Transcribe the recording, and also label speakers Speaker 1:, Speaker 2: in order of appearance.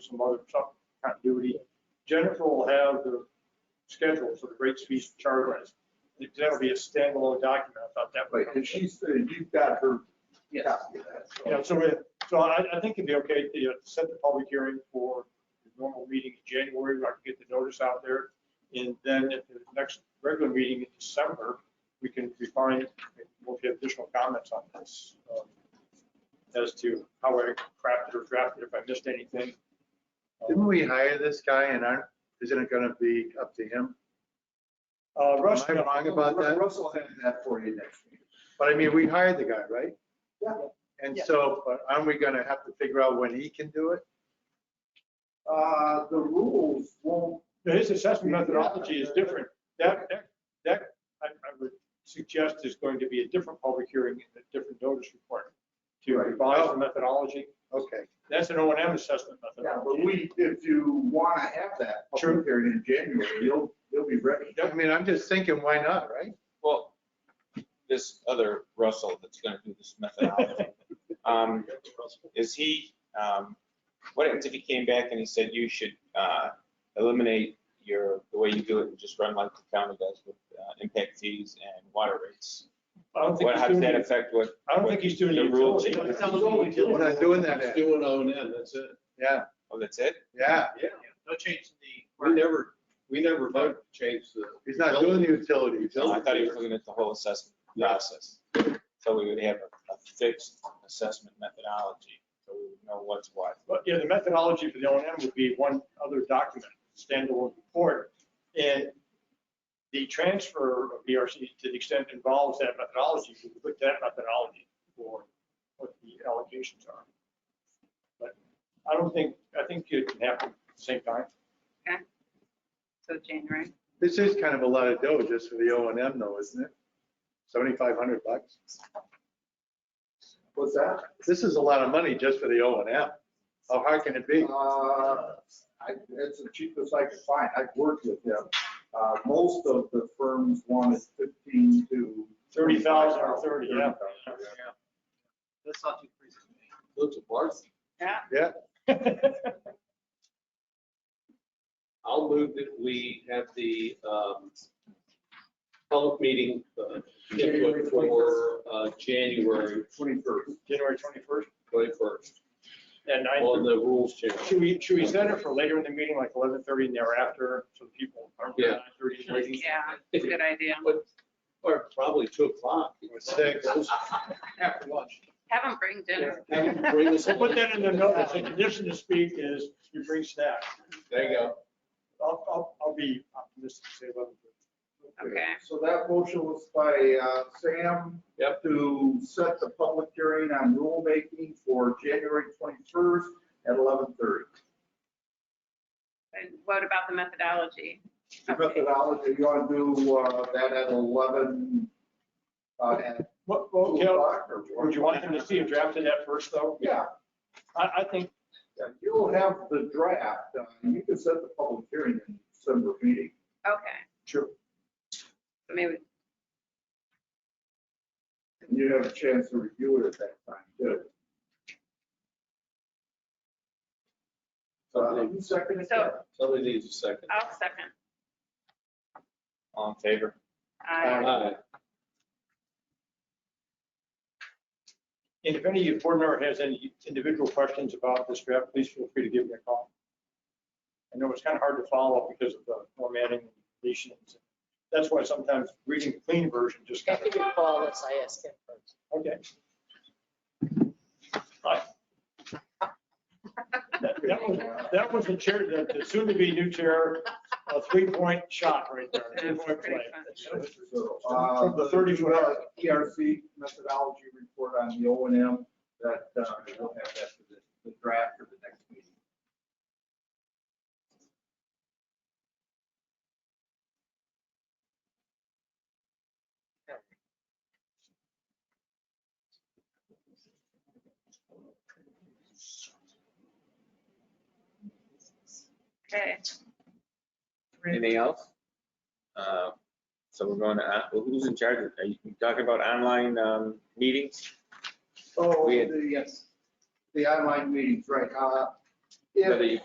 Speaker 1: some other some continuity. Jennifer will have the schedule for the rates, fees, and charges. That'll be a standalone document. I thought that
Speaker 2: Wait, and
Speaker 1: would.
Speaker 2: she's, uh, you've got her
Speaker 3: Yes.
Speaker 2: copy of that. so-
Speaker 1: Yeah, so, we- so I, I think it'd be okay to you know, set the public hearing for the normal meeting in January, where I can get the notice out there. And then at the next regular meeting in December, we can refine, we'll get additional comments on this um, as to how I crafted or drafted, if I missed anything.
Speaker 2: Didn't we hire this guy and aren't, isn't it gonna be up to him?
Speaker 1: Uh, Russ.
Speaker 2: Am I wrong about that?
Speaker 4: Russell had that for you next week.
Speaker 2: But I mean, we hired the guy, right?
Speaker 4: Yeah.
Speaker 2: And
Speaker 3: Yeah.
Speaker 2: so, but aren't we gonna have to figure out when he can do it?
Speaker 4: Uh, the rules won't,
Speaker 1: Now, His assessment methodology is different. That, that, that, I, I would suggest is going to be a different public hearing and a different notice requirement to
Speaker 2: Right.
Speaker 1: revise the methodology.
Speaker 2: Okay.
Speaker 1: That's an O and M assessment
Speaker 4: yeah, but
Speaker 1: methodology.
Speaker 4: we, if you want to have that
Speaker 1: Sure.
Speaker 4: public hearing in January, you'll, you'll be ready.
Speaker 2: I mean, I'm just thinking, why not, right?
Speaker 5: Well, this other Russell that's gonna do this methodology, um, is he, um, what happens if he came back and he said you should, uh, eliminate your, the way you do it and just run like the county does with, uh, impact fees and water rates?
Speaker 1: I don't think
Speaker 5: What,
Speaker 1: he's
Speaker 5: how does
Speaker 1: doing,
Speaker 5: that
Speaker 1: the-
Speaker 5: affect what?
Speaker 1: I don't think he's doing the
Speaker 5: the rule
Speaker 1: utility.
Speaker 5: change.
Speaker 1: I
Speaker 2: We're not doing that.
Speaker 6: It's
Speaker 2: Ed.
Speaker 6: doing O and M, that's it.
Speaker 2: Yeah,
Speaker 5: Oh, that's it?
Speaker 2: yeah.
Speaker 6: Yeah. No change to the. We never, we never voted to change the.
Speaker 2: He's not doing the utilities.
Speaker 5: No, Oh, I thought he was looking at the whole assessment process. So we would have a a fixed assessment methodology, so we would know what's what.
Speaker 1: But, yeah, the methodology for the O and M would be one other document, standalone report. And the transfer of BRC to the extent it involves that methodology, we would put that methodology for what the allocations are. But I don't think, I think it can happen at the same time.
Speaker 7: So January.
Speaker 2: This is kind of a lot of dough just for the O and M though, isn't it? Seventy-five hundred bucks.
Speaker 4: What's that?
Speaker 2: This is a lot of money just for the O and M. How hard can it be?
Speaker 4: Uh, I, it's the cheapest I could find. I've worked with him. Uh, most of the firms wanted fifteen to.
Speaker 1: 30,000 or 30, yeah.
Speaker 4: 30,000,
Speaker 3: That's not too crazy.
Speaker 6: Look to Bars.
Speaker 2: Yeah,
Speaker 6: I'll move that we have the um, public meeting uh,
Speaker 4: January
Speaker 6: input for uh, January
Speaker 4: Twenty-first.
Speaker 1: January 21st.
Speaker 6: 21st
Speaker 1: And I.
Speaker 6: on the rules change.
Speaker 1: Should we, should we set it for later in the meeting, like eleven thirty and thereafter, so the people aren't
Speaker 6: Yeah.
Speaker 1: nine thirty waiting?
Speaker 7: Yeah, good idea.
Speaker 6: But- Or probably 2 o'clock.
Speaker 2: Or six.
Speaker 6: After lunch.
Speaker 7: Have them bring dinner.
Speaker 6: Have them bring us
Speaker 1: We'll put that in the notice, the condition to speak is you bring snacks.
Speaker 6: There you go.
Speaker 1: I'll, I'll, I'll be optimistic, say eleven thirty.
Speaker 7: Okay.
Speaker 4: So that motion was by uh, Sam.
Speaker 6: Yep.
Speaker 4: To set the public hearing on rulemaking for January 21st at 11:30.
Speaker 7: And what about the methodology?
Speaker 4: The
Speaker 7: Okay.
Speaker 4: methodology, you want to do uh, that at 11, uh, at
Speaker 1: What,
Speaker 4: 2
Speaker 1: what, Cal,
Speaker 4: o'clock? or
Speaker 1: would you want them to see a draft of that first, though?
Speaker 4: Yeah,
Speaker 1: I, I think,
Speaker 4: yeah, you'll have the draft. uh, You can set the public hearing in December meeting.
Speaker 7: Okay,
Speaker 1: sure,
Speaker 7: maybe,
Speaker 4: And you have a chance to review it at that time, too. So uh, who seconded that?
Speaker 6: Somebody needs a second.
Speaker 7: I'll second.
Speaker 5: All in favor?
Speaker 7: I
Speaker 6: Aye.
Speaker 1: and if any board member has any individual questions about this draft, please feel free to give me a call. I know it's kind of hard to follow because of the formatting and deletions. That's why sometimes reading the clean version just
Speaker 8: I
Speaker 1: kind
Speaker 8: think
Speaker 1: of,
Speaker 8: it follows, I ask him first.
Speaker 1: okay. Right. That that was, that was the chair, the the soon-to-be new chair, a three-point shot right there.
Speaker 7: That's
Speaker 1: three-point
Speaker 7: pretty
Speaker 1: play.
Speaker 7: fun.
Speaker 4: So, uh,
Speaker 1: From the 30 to an hour.
Speaker 4: PRC methodology report on the O and M that, uh, we'll have that for the, the draft for the next meeting.
Speaker 7: Okay.
Speaker 5: Anything else? Uh, So we're going to, uh, well, who's in charge? of- Are you talking about online um, meetings?
Speaker 4: So
Speaker 5: We had-
Speaker 4: Oh, the, the online meetings, right, uh, if-
Speaker 5: Whether you